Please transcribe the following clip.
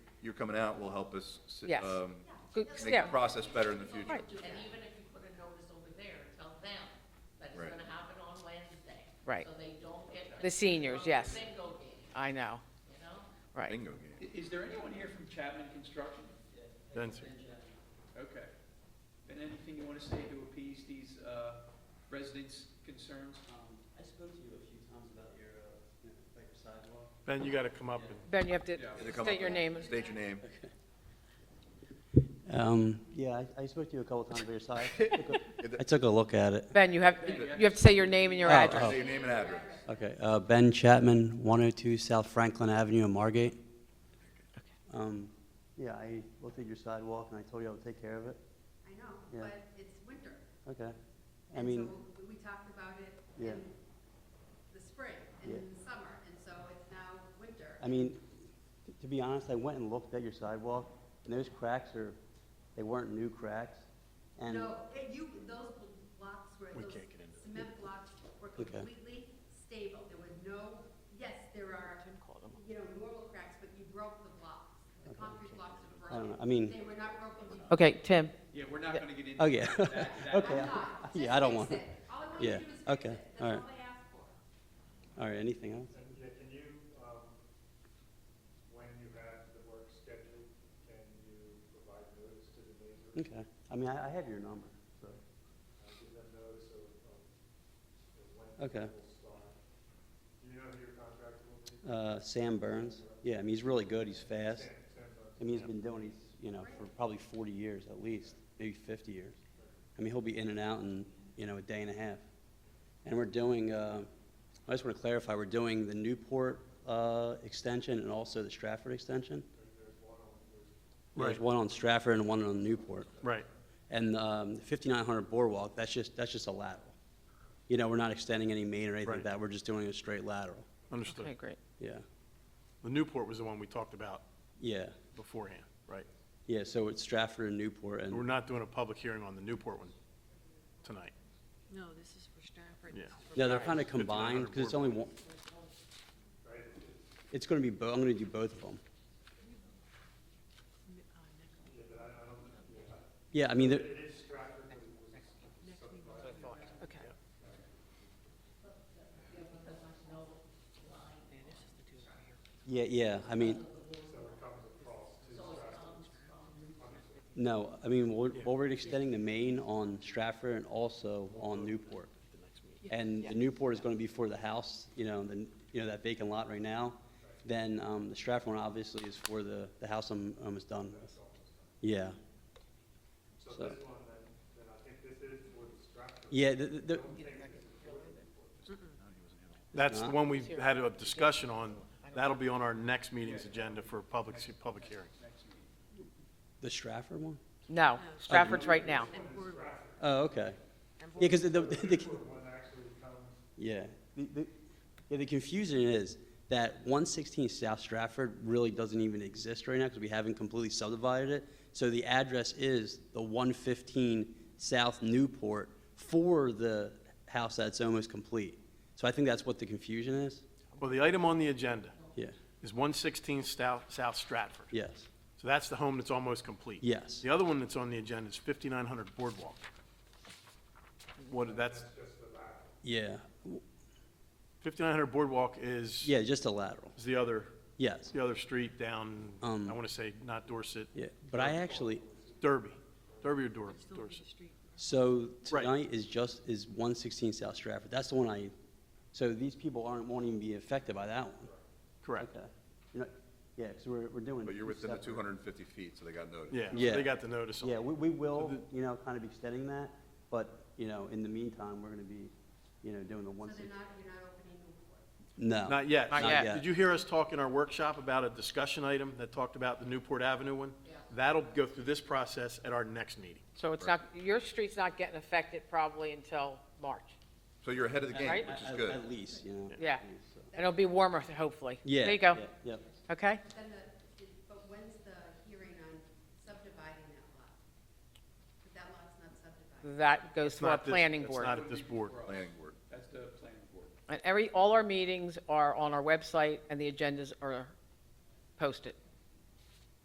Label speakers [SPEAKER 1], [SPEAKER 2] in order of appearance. [SPEAKER 1] you're coming out will help us, s-
[SPEAKER 2] Yes.
[SPEAKER 1] um,
[SPEAKER 2] Good-
[SPEAKER 1] make
[SPEAKER 2] yeah.
[SPEAKER 1] the process better in the future.
[SPEAKER 2] Right.
[SPEAKER 3] And even if you put a notice over there, tell them that it's
[SPEAKER 1] Right.
[SPEAKER 3] gonna happen on Wednesday.
[SPEAKER 2] Right.
[SPEAKER 3] So they don't get.
[SPEAKER 2] The seniors, yes.
[SPEAKER 3] Bingo game,
[SPEAKER 2] I know,
[SPEAKER 3] you know?
[SPEAKER 2] right.
[SPEAKER 1] Bingo game.
[SPEAKER 4] I- Is there anyone here from Chapman Construction?
[SPEAKER 5] Nancy.
[SPEAKER 4] Okay. And anything you want to say to appease these uh, residents' concerns?
[SPEAKER 6] Um, I spoke to you a few times about your, uh, you know, like your sidewalk.
[SPEAKER 5] Ben, you got to come up and
[SPEAKER 2] Ben, you have to
[SPEAKER 4] Yeah.
[SPEAKER 1] Is it come
[SPEAKER 2] state
[SPEAKER 1] up-
[SPEAKER 2] your name.
[SPEAKER 1] State your name.
[SPEAKER 6] Um, yeah, I, I spoke to you a couple times about your sidewalk. I took a look at it.
[SPEAKER 2] Ben, you have, you have to say your name and your
[SPEAKER 6] Oh,
[SPEAKER 2] address.
[SPEAKER 1] Say your name and address.
[SPEAKER 6] Okay, uh, Ben Chapman, 102 South Franklin Avenue in Margate. Um, yeah, I looked at your sidewalk and I told you I would take care of it.
[SPEAKER 7] I know,
[SPEAKER 6] Yeah.
[SPEAKER 7] but it's winter.
[SPEAKER 6] Okay. I
[SPEAKER 7] and
[SPEAKER 6] mean,
[SPEAKER 7] so we- We talked about it
[SPEAKER 6] Yeah.
[SPEAKER 7] in the spring and
[SPEAKER 6] Yeah.
[SPEAKER 7] in the summer, and so it's now winter.
[SPEAKER 6] I mean, t- to be honest, I went and looked at your sidewalk and those cracks are, they weren't new cracks. And
[SPEAKER 7] No, it- you, those blocks were, those cement blocks were
[SPEAKER 6] Okay.
[SPEAKER 7] completely stable. There was no, yes, there are, you know, normal cracks, but you broke the blocks. The concrete blocks are
[SPEAKER 6] I
[SPEAKER 7] broken.
[SPEAKER 6] don't know, I mean,
[SPEAKER 7] They were not broken. to-
[SPEAKER 2] Okay, Tim,
[SPEAKER 4] Yeah, we're not going to get into
[SPEAKER 6] oh yeah,
[SPEAKER 4] that. that-
[SPEAKER 6] okay.
[SPEAKER 7] I'm
[SPEAKER 6] I-
[SPEAKER 7] not. Just
[SPEAKER 6] Yeah, I don't
[SPEAKER 7] fix
[SPEAKER 6] want,
[SPEAKER 7] it. All I want you
[SPEAKER 6] Yeah,
[SPEAKER 7] to do is fix
[SPEAKER 6] okay,
[SPEAKER 7] it. That's
[SPEAKER 6] all right.
[SPEAKER 7] all I ask for.
[SPEAKER 6] all right, anything else?
[SPEAKER 8] Yeah, can you, um, when you have the work scheduled, can you provide notice to the neighbors?
[SPEAKER 6] Okay, I mean, I, I have your number, so,
[SPEAKER 8] Uh, Give them notice of, of you know, when
[SPEAKER 6] Okay.
[SPEAKER 8] it will start. Do you know who your contractor will be?
[SPEAKER 6] uh, Sam Burns, yeah, I mean, he's really good, he's fast.
[SPEAKER 8] Sam, Sam Buck.
[SPEAKER 6] I mean, he's been doing, he's, you know, for probably forty years at least, maybe fifty years. I mean, he'll be in and out in, you know, a day and a half. And we're doing, uh, I just wanna clarify, we're doing the Newport, uh, extension and also the Stratford extension. There's
[SPEAKER 5] Right.
[SPEAKER 6] one on Stratford and one on Newport.
[SPEAKER 5] right.
[SPEAKER 6] And um, 5900 Boardwalk, that's just, that's just a lateral. You know, we're not extending any main or anything like
[SPEAKER 5] Right.
[SPEAKER 6] that, we're just doing a straight lateral.
[SPEAKER 2] okay,
[SPEAKER 5] Understood.
[SPEAKER 2] great.
[SPEAKER 6] Yeah,
[SPEAKER 5] The Newport was the one we talked about
[SPEAKER 6] yeah,
[SPEAKER 5] beforehand, right?
[SPEAKER 6] yeah, so it's Stratford and Newport
[SPEAKER 5] We're
[SPEAKER 6] and,
[SPEAKER 5] not doing a public hearing on the Newport one tonight.
[SPEAKER 9] No, this is for Stratford.
[SPEAKER 5] Yeah.
[SPEAKER 6] yeah, they're kind of combined, because it's only one,
[SPEAKER 8] Right, it- it-
[SPEAKER 6] it's going to be, bo- I'm going to do both of them.
[SPEAKER 8] yeah, but I, I don't, yeah, I-
[SPEAKER 6] Yeah, I mean, they're-
[SPEAKER 8] it is Stratford, but it was subdivided.
[SPEAKER 9] Okay.
[SPEAKER 6] yeah, yeah, I mean, no, I mean, we're, well, we're extending the main on Stratford and also on Newport. And the Newport is going to be for the house, you know, the, you know, that vacant lot right now. Then um, the Stratford one obviously is for the, the house I'm almost done with. Yeah.
[SPEAKER 8] So
[SPEAKER 6] So-
[SPEAKER 8] this one, then, then I think this is for the Stratford.
[SPEAKER 6] Yeah, the, the,
[SPEAKER 5] That's the one we've had a discussion on. That'll be on our next meeting's agenda for a public, public hearing.
[SPEAKER 6] the Stratford one?
[SPEAKER 2] No, Stratford's right now.
[SPEAKER 6] Oh, okay. Yeah, because the, the, the-
[SPEAKER 8] One actually comes
[SPEAKER 6] yeah. The, the, yeah, the confusion is that one sixteen South Stratford really doesn't even exist right now because we haven't completely subdivided it. So the address is the one fifteen South Newport for the house that's almost complete. So I think that's what the confusion is.
[SPEAKER 5] Well, the item on the agenda
[SPEAKER 6] Yeah,
[SPEAKER 5] is 116 South South Stratford.
[SPEAKER 6] yes,
[SPEAKER 5] So that's the home that's almost complete.
[SPEAKER 6] Yes.
[SPEAKER 5] The other one that's on the agenda is 5900 Boardwalk. What, that's,
[SPEAKER 6] yeah, W-
[SPEAKER 5] 5900 Boardwalk is,
[SPEAKER 6] yeah, just a lateral,
[SPEAKER 5] is the other,
[SPEAKER 6] yes,
[SPEAKER 5] the other street down, I
[SPEAKER 6] Um,
[SPEAKER 5] want to say, not Dorset,
[SPEAKER 6] yeah. But I actually,
[SPEAKER 5] Derby, Derby or Dor- Dorset?
[SPEAKER 6] So
[SPEAKER 5] Right.
[SPEAKER 6] tonight is just, is one sixteen South Stratford, that's the one I, so these people aren't, won't even be affected by that one?
[SPEAKER 5] Correct.
[SPEAKER 6] Okay. You're not- Yeah, because we're, we're doing.
[SPEAKER 1] But you're within the
[SPEAKER 6] separate-
[SPEAKER 1] 250 feet, so they got notice.
[SPEAKER 5] Yeah, so
[SPEAKER 6] Yeah.
[SPEAKER 5] they got the notice on
[SPEAKER 6] Yeah,
[SPEAKER 5] it.
[SPEAKER 6] we, we will,
[SPEAKER 5] So
[SPEAKER 6] you know, kind of extending that, but, you know, in the meantime, we're gonna be, you know, doing the
[SPEAKER 7] So
[SPEAKER 6] one
[SPEAKER 7] they're
[SPEAKER 6] sixteen.
[SPEAKER 7] not, you're not opening Newport.
[SPEAKER 6] No.
[SPEAKER 5] Not yet.
[SPEAKER 2] Not Not yet.
[SPEAKER 6] yet.
[SPEAKER 5] Did you hear us talk in our workshop about a discussion item that talked about the Newport Avenue one? That'll go through this process at our next meeting.
[SPEAKER 2] So it's not, your street's not getting affected probably until March.
[SPEAKER 1] So you're ahead of the game,
[SPEAKER 2] Right.
[SPEAKER 1] which is
[SPEAKER 6] At-
[SPEAKER 1] good.
[SPEAKER 6] At least, you know. at
[SPEAKER 2] Yeah.
[SPEAKER 6] least, so.
[SPEAKER 2] And it'll be warmer, hopefully.
[SPEAKER 6] Yeah.
[SPEAKER 2] There you go.
[SPEAKER 6] yeah, Yep.
[SPEAKER 2] Okay?
[SPEAKER 7] But Then the, it- but when's the hearing on subdividing that lot? But that lot's not subdivided.
[SPEAKER 2] That goes
[SPEAKER 5] It's
[SPEAKER 2] to our
[SPEAKER 5] not this-
[SPEAKER 2] planning
[SPEAKER 5] it's
[SPEAKER 2] board.
[SPEAKER 5] not at this board.
[SPEAKER 1] Planning board.
[SPEAKER 4] That's the planning board.
[SPEAKER 2] And every, all our meetings are on our website, and the agendas are posted.